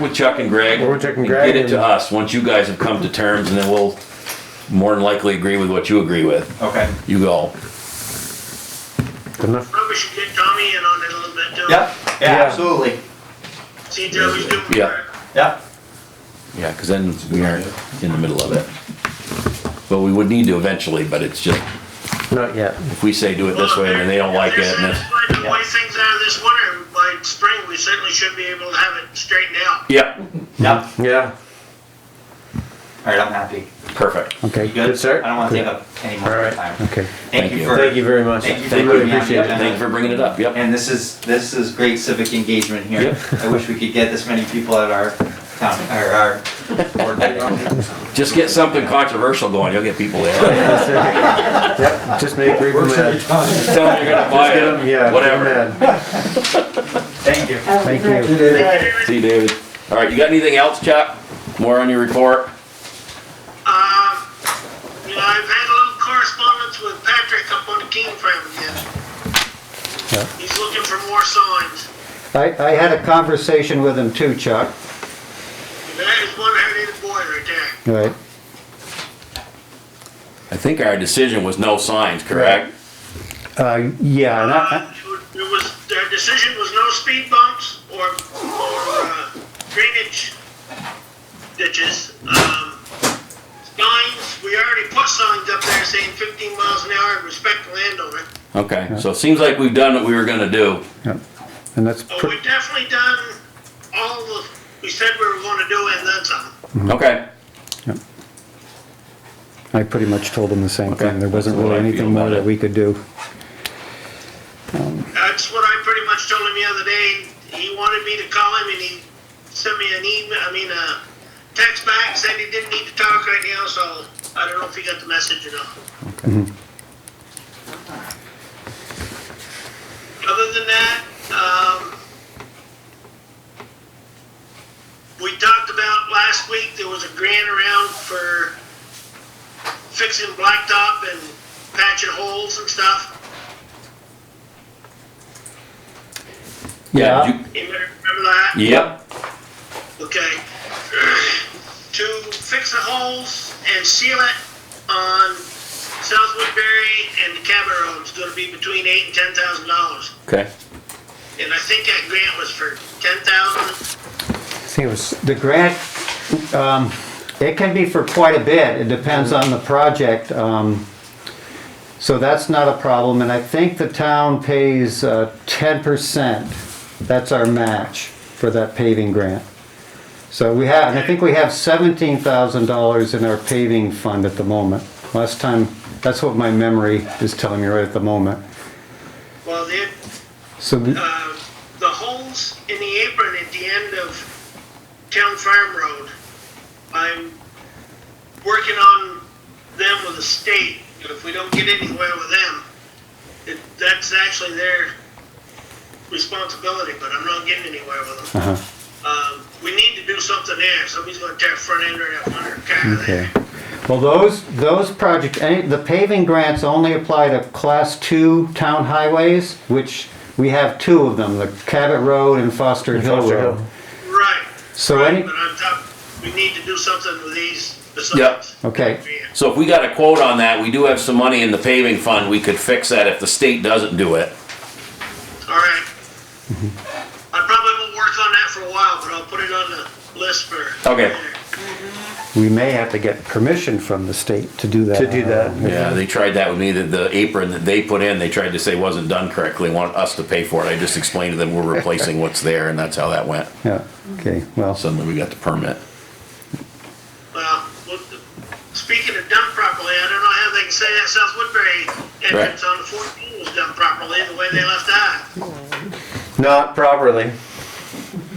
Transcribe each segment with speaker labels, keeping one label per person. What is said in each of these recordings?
Speaker 1: with Chuck and Greg.
Speaker 2: We're checking Greg
Speaker 1: Get it to
Speaker 2: and-
Speaker 1: us, once you guys have come to terms, and then we'll more than likely agree with what you agree with.
Speaker 3: Okay.
Speaker 1: You go.
Speaker 2: Enough.
Speaker 4: Probably should get Tommy in on it a little bit too.
Speaker 3: Yep. Yeah,
Speaker 2: Yeah.
Speaker 3: absolutely.
Speaker 4: See if Tommy's doing
Speaker 1: Yeah.
Speaker 4: work.
Speaker 3: Yep.
Speaker 1: Yeah, because then we aren't in the middle of it. But we would need to eventually, but it's just,
Speaker 2: Not yet.
Speaker 1: if we say do it this way, and then they don't like it,
Speaker 4: If
Speaker 1: and
Speaker 4: they're
Speaker 1: it's.
Speaker 4: satisfied with the way things are this winter, by spring, we certainly should be able to have it straightened out.
Speaker 1: Yep,
Speaker 3: Yep.
Speaker 2: Yeah.
Speaker 3: All right, I'm happy.
Speaker 1: perfect.
Speaker 2: Okay.
Speaker 3: You good?
Speaker 2: sir.
Speaker 3: I don't want to
Speaker 2: Good.
Speaker 3: take up any
Speaker 2: All
Speaker 3: more of your
Speaker 2: right.
Speaker 3: time.
Speaker 2: Okay.
Speaker 1: Thank
Speaker 3: Thank you
Speaker 1: you.
Speaker 3: for.
Speaker 2: Thank you very much.
Speaker 3: Thank you for
Speaker 2: We
Speaker 1: Thank
Speaker 2: really
Speaker 3: bringing me on the
Speaker 2: appreciate it.
Speaker 3: agenda.
Speaker 1: Thank you for bringing it up, yep.
Speaker 3: And this is, this is great civic engagement here. I wish we could get this many people at our town, or our board meeting.
Speaker 1: Just get something controversial going, you'll get people there.
Speaker 2: Yep. Just make Rick mad.
Speaker 1: Tell them you're gonna buy
Speaker 2: Get him, yeah.
Speaker 1: it, whatever.
Speaker 2: Get him mad.
Speaker 3: Thank you.
Speaker 2: Thank you.
Speaker 1: See you, David. All right, you got anything else, Chuck? More on your report?
Speaker 4: Uh, you know, I've had a little correspondence with Patrick up on the King Farm again.
Speaker 2: Yeah.
Speaker 4: He's looking for more signs.
Speaker 5: I, I had a conversation with him too, Chuck.
Speaker 4: That is one head of the boy right there.
Speaker 5: Right.
Speaker 1: I think our decision was no signs, correct?
Speaker 5: Uh, yeah, and I,
Speaker 4: Uh, It was, their decision was no speed bumps or, or uh, drainage ditches. Um, Signs, we already put signs up there saying fifteen miles an hour, and respect the landowner.
Speaker 1: Okay, so it seems like we've done what we were gonna do.
Speaker 5: and that's,
Speaker 4: But
Speaker 5: pr-
Speaker 4: we've definitely done all the, we said we were gonna do and then some.
Speaker 1: Okay,
Speaker 5: I pretty much told him the same
Speaker 1: Okay,
Speaker 5: thing. There wasn't
Speaker 1: that's the
Speaker 5: really
Speaker 1: way I feel
Speaker 5: anything more
Speaker 1: about it.
Speaker 5: that we could do.
Speaker 4: That's what I pretty much told him the other day. He wanted me to call him and he sent me an email, I mean, a text back, said he didn't need to talk right now, so I don't know if he got the message or not.
Speaker 5: Mm-hmm.
Speaker 4: Other than that, um, we talked about last week, there was a grant around for fixing blacktop and patching holes and stuff.
Speaker 1: yeah,
Speaker 5: Yeah.
Speaker 1: did
Speaker 4: You remember that?
Speaker 1: you- yep,
Speaker 4: Okay. To fix the holes and seal it on South Woodbury and the Cabot Road is gonna be between eight and ten thousand dollars.
Speaker 1: okay,
Speaker 4: And I think that grant was for ten thousand.
Speaker 5: I think it was. The grant, um, it can be for quite a bit. It depends on the project. Um, so that's not a problem. And I think the town pays uh, 10%. That's our match for that paving grant. So we have, and I think we have $17,000 in our paving fund at the moment. Last time, that's what my memory is telling me right at the moment.
Speaker 4: Well, the,
Speaker 5: So, the-
Speaker 4: uh, the holes in the apron at the end of Town Farm Road, I'm working on them with the state. If we don't get anywhere with them, it, that's actually their responsibility, but I'm not getting anywhere with them.
Speaker 5: uh-huh,
Speaker 4: Um, we need to do something there. Somebody's gonna tear front end or that front car
Speaker 5: okay.
Speaker 4: there.
Speaker 5: Well, those, those projects, any- the paving grants only apply to class two town highways, which we have two of them, the Cabot Road and Foster Hill
Speaker 2: Foster
Speaker 5: Road.
Speaker 2: Hill.
Speaker 4: Right.
Speaker 5: So
Speaker 4: right,
Speaker 5: any-
Speaker 4: But I'm talking, we need to do something with these
Speaker 1: Yep.
Speaker 4: besides.
Speaker 5: Okay.
Speaker 4: Yeah.
Speaker 1: so if we got a quote on that, we do have some money in the paving fund, we could fix that if the state doesn't do it.
Speaker 4: Alright. I probably will work on that for a while, but I'll put it on the list for.
Speaker 1: Okay.
Speaker 5: We may have to get permission from the state to do that. Uh,
Speaker 2: To do that.
Speaker 1: Yeah, they tried that with me, that the apron that they put in, they tried to say wasn't done correctly, want us to pay for it, I just explained to them we're replacing what's there, and that's how that went.
Speaker 5: Yeah, okay, well,
Speaker 1: Suddenly we got the permit.
Speaker 4: Well, look, speaking of done properly, I don't know how they can say that South Woodbury entrance on the fourteen was done properly, the way they left that.
Speaker 2: Not properly.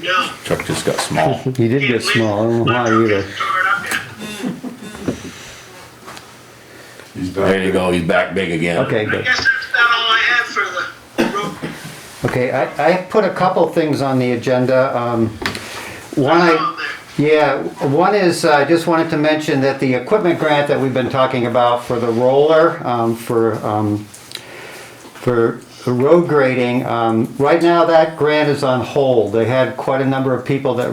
Speaker 4: No.
Speaker 1: Chuck just got small.
Speaker 5: he did get small, I don't know
Speaker 4: My
Speaker 5: why
Speaker 4: truck
Speaker 5: either.
Speaker 4: is tore it up yet.
Speaker 6: He's
Speaker 1: There
Speaker 6: back.
Speaker 1: you go, he's back big again.
Speaker 5: Okay,
Speaker 4: I
Speaker 5: good.
Speaker 4: guess that's about all I have for the road.
Speaker 5: Okay, I, I put a couple things on the agenda. Um, One,
Speaker 4: problem
Speaker 5: I,
Speaker 4: there.
Speaker 5: yeah, one is, uh, I just wanted to mention that the equipment grant that we've been talking about for the roller, um, for, um, for road grading, um, right now that grant is on hold. They had quite a number of people that